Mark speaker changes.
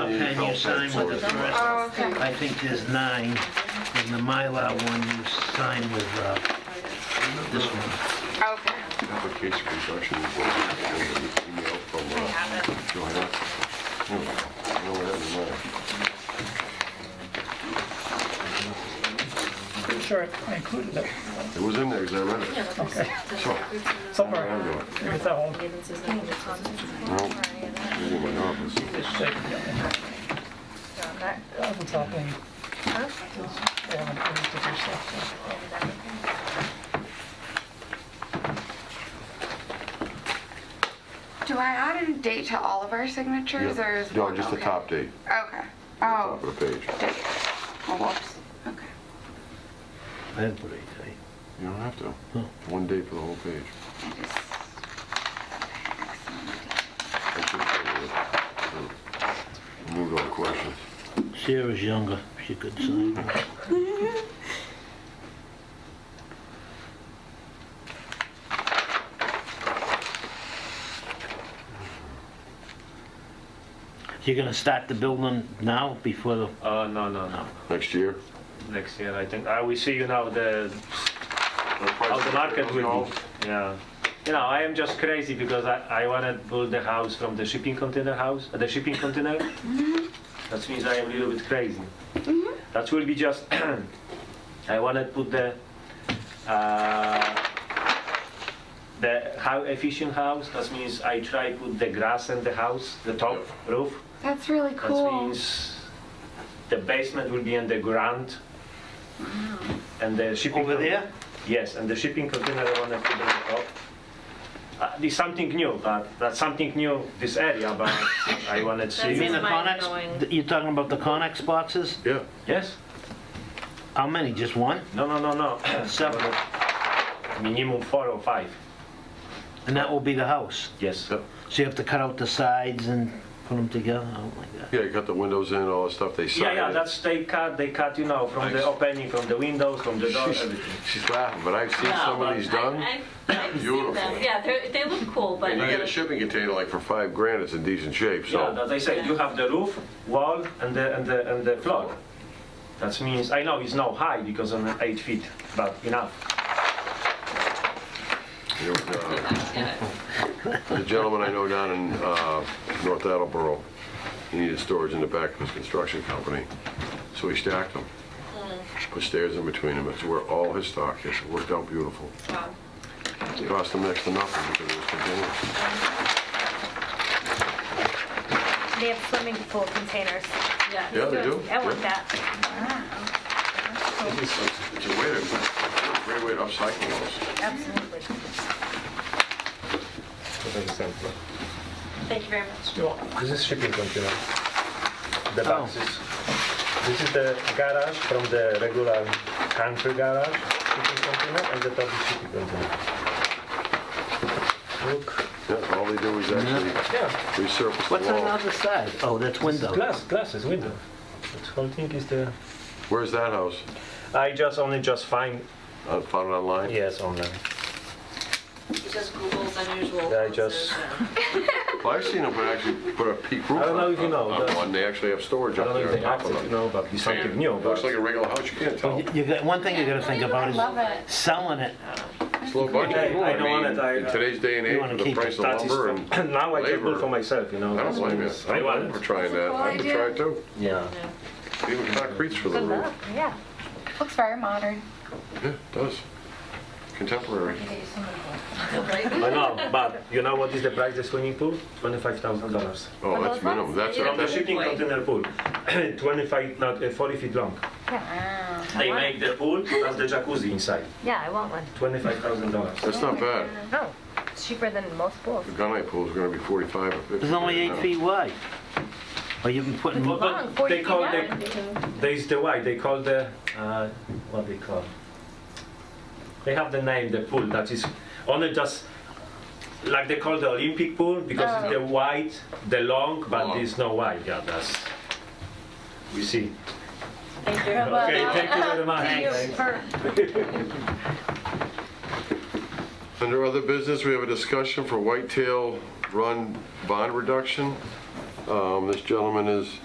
Speaker 1: pen you sign with the rest.
Speaker 2: Oh, okay.
Speaker 1: I think there's nine, and the Mylar one you sign with uh, this one.
Speaker 2: Okay.
Speaker 3: Application construction report, uh, email from
Speaker 2: I
Speaker 3: uh,
Speaker 2: have it.
Speaker 3: Joanna. No, no, that doesn't matter.
Speaker 4: Pretty sure I included it
Speaker 3: It was in there, because I read it. So, I
Speaker 4: somewhere.
Speaker 3: don't know.
Speaker 4: It was at home.
Speaker 3: No, it was in my office.
Speaker 4: That was happening. They haven't finished it or something.
Speaker 2: Do I add a date to all of our signatures, or is
Speaker 3: No,
Speaker 2: one-
Speaker 3: just the
Speaker 2: okay.
Speaker 3: top date,
Speaker 2: Okay.
Speaker 3: top
Speaker 2: Oh,
Speaker 3: of the page.
Speaker 2: date. Oh, whoops. Okay.
Speaker 1: I didn't put a date.
Speaker 3: You don't have to. One date for the whole page.
Speaker 2: I just.
Speaker 3: I should have done it. Moved on to questions.
Speaker 1: Sarah's younger, she could sign. You're gonna start the building now before the,
Speaker 5: Uh, no, no, no.
Speaker 3: Next year?
Speaker 5: Next year, I think. I will see you now the how the market will be. Yeah. You know, I am just crazy because I, I want to build the house from the shipping container house, uh, the shipping container. That means I am a little bit crazy. That will be just. I want to put the uh, the how efficient house. That means I try put the grass and the house, the top roof.
Speaker 2: That's really
Speaker 5: That
Speaker 2: cool.
Speaker 5: means the basement will be underground. And the shipping.
Speaker 1: over there?
Speaker 5: Yes, and the shipping container I wanna put on the top. Uh, It's something new, but that's something new, this area, but I wanted to
Speaker 1: You
Speaker 5: see.
Speaker 1: mean the
Speaker 6: Mine
Speaker 1: Conex,
Speaker 6: going-
Speaker 1: you're talking about the Conex boxes?
Speaker 3: Yeah.
Speaker 5: Yes?
Speaker 1: How many, just one?
Speaker 5: No, no, no, no.
Speaker 1: Seven.
Speaker 5: Minimum four or five.
Speaker 1: And that will be the house?
Speaker 5: Yes.
Speaker 1: So you have to cut out the sides and put them together? Oh my God.
Speaker 3: Yeah, you got the windows in, all the stuff they
Speaker 5: Yeah,
Speaker 3: signed.
Speaker 5: yeah, that's, they cut, they cut, you know, from the
Speaker 3: Nice.
Speaker 5: opening, from the windows, from the door, everything.
Speaker 3: She's laughing, but I've seen some of these done.
Speaker 6: I- I've- I've seen
Speaker 3: Beautiful.
Speaker 6: them, yeah, they're- they look cool, but
Speaker 3: And you get a
Speaker 6: they're-
Speaker 3: shipping container like for five grand, it's in decent shape,
Speaker 5: Yeah,
Speaker 3: so.
Speaker 5: as I said, you have the roof, wall, and the, and the, and the floor. That means, I know it's not high because I'm eight feet, but enough.
Speaker 3: you know, uh, The gentleman I know down in uh, North Attleboro, he needed storage in the back of his construction company, so he stacked them.
Speaker 6: Hmm.
Speaker 3: Put stairs in between them, it's where all his stock is, it worked out beautiful.
Speaker 6: Wow.
Speaker 3: It cost him next to nothing because it was containers.
Speaker 7: They have swimming pool containers.
Speaker 6: yeah.
Speaker 3: Yeah, they do.
Speaker 7: I want
Speaker 3: Yeah.
Speaker 7: that.
Speaker 3: It's a way to, it's a great way to upcycle those.
Speaker 7: Absolutely.
Speaker 6: Thank you very much.
Speaker 5: This is shipping container. The
Speaker 1: Oh.
Speaker 5: boxes. This is the garage from the regular country garage, shipping container, and the top is shipping container. Look,
Speaker 3: Yeah, all they do is actually
Speaker 5: yeah,
Speaker 3: resurface
Speaker 1: What's
Speaker 3: the
Speaker 1: on the
Speaker 3: wall.
Speaker 1: other side? Oh, that's window.
Speaker 5: glass, glasses, window. This whole thing is the.
Speaker 3: Where's that house?
Speaker 5: I just only just find
Speaker 3: I uh, Found it online?
Speaker 5: yes online.
Speaker 6: He just Googles unusual.
Speaker 5: Yeah, I
Speaker 6: houses
Speaker 5: just-
Speaker 6: and-
Speaker 3: Well, I've seen them put actually put a peak roof
Speaker 5: I don't know if you
Speaker 3: on-
Speaker 5: know,
Speaker 3: on
Speaker 5: that's-
Speaker 3: one, they actually have storage
Speaker 5: I
Speaker 3: up
Speaker 5: don't know
Speaker 3: there
Speaker 5: if
Speaker 3: on
Speaker 5: they
Speaker 3: top
Speaker 5: access
Speaker 3: of
Speaker 5: it
Speaker 3: it.
Speaker 5: now, but it's something new. But
Speaker 3: Looks like a regular house, you can't tell.
Speaker 1: You- You got, one thing you gotta think about
Speaker 2: Love
Speaker 1: is
Speaker 2: it.
Speaker 1: selling it.
Speaker 3: It's low budget.
Speaker 5: Hey, I don't want
Speaker 3: mean,
Speaker 5: it, I-
Speaker 3: In today's day and
Speaker 1: You
Speaker 3: age,
Speaker 1: wanna
Speaker 3: with the
Speaker 1: keep
Speaker 3: price of
Speaker 5: that is
Speaker 3: lumber
Speaker 5: from-
Speaker 3: and
Speaker 5: now I just do it for
Speaker 3: labor.
Speaker 5: myself, you know.
Speaker 3: I don't blame you. I
Speaker 5: I
Speaker 3: don't blame
Speaker 5: want
Speaker 3: you for
Speaker 5: it.
Speaker 3: trying that. I would
Speaker 2: idea.
Speaker 3: try it too.
Speaker 5: Yeah.
Speaker 3: Even concrete's for the roof.
Speaker 7: Yeah.
Speaker 2: Looks very modern.
Speaker 3: Yeah, it does. Contemporary.
Speaker 5: I know, but you know what is the price of the swimming pool? Twenty-five thousand dollars.
Speaker 3: Oh,
Speaker 7: Well,
Speaker 3: that's
Speaker 7: that's-
Speaker 3: minimum. That's,
Speaker 6: you
Speaker 5: From the
Speaker 3: that's,
Speaker 5: shipping container pool, 25, not, uh, 40 feet long.
Speaker 2: Wow.
Speaker 5: They make the pool plus the jacuzzi inside,
Speaker 7: Yeah, I want one.
Speaker 5: $25,000.
Speaker 3: that's not bad.
Speaker 7: No, it's cheaper than most pools.
Speaker 3: The gunite pool's gonna be forty-five or fifty.
Speaker 1: It's only eight
Speaker 3: now.
Speaker 1: feet wide. Or you've been putting,
Speaker 5: But-
Speaker 7: Long,
Speaker 5: but
Speaker 7: 40
Speaker 5: They
Speaker 7: feet
Speaker 5: call
Speaker 7: wide.
Speaker 5: the, there is the why, they call the, uh, what they call? They have the name, the pool that is, only just, like they call the Olympic pool because it's the wide, the long, but
Speaker 3: Long.
Speaker 5: it's not wide, yeah, that's, we see.
Speaker 6: Thank you.
Speaker 5: Okay, thank you very much.
Speaker 3: Under other business, we have a discussion for Whitetail Run bond reduction. Um, This gentleman is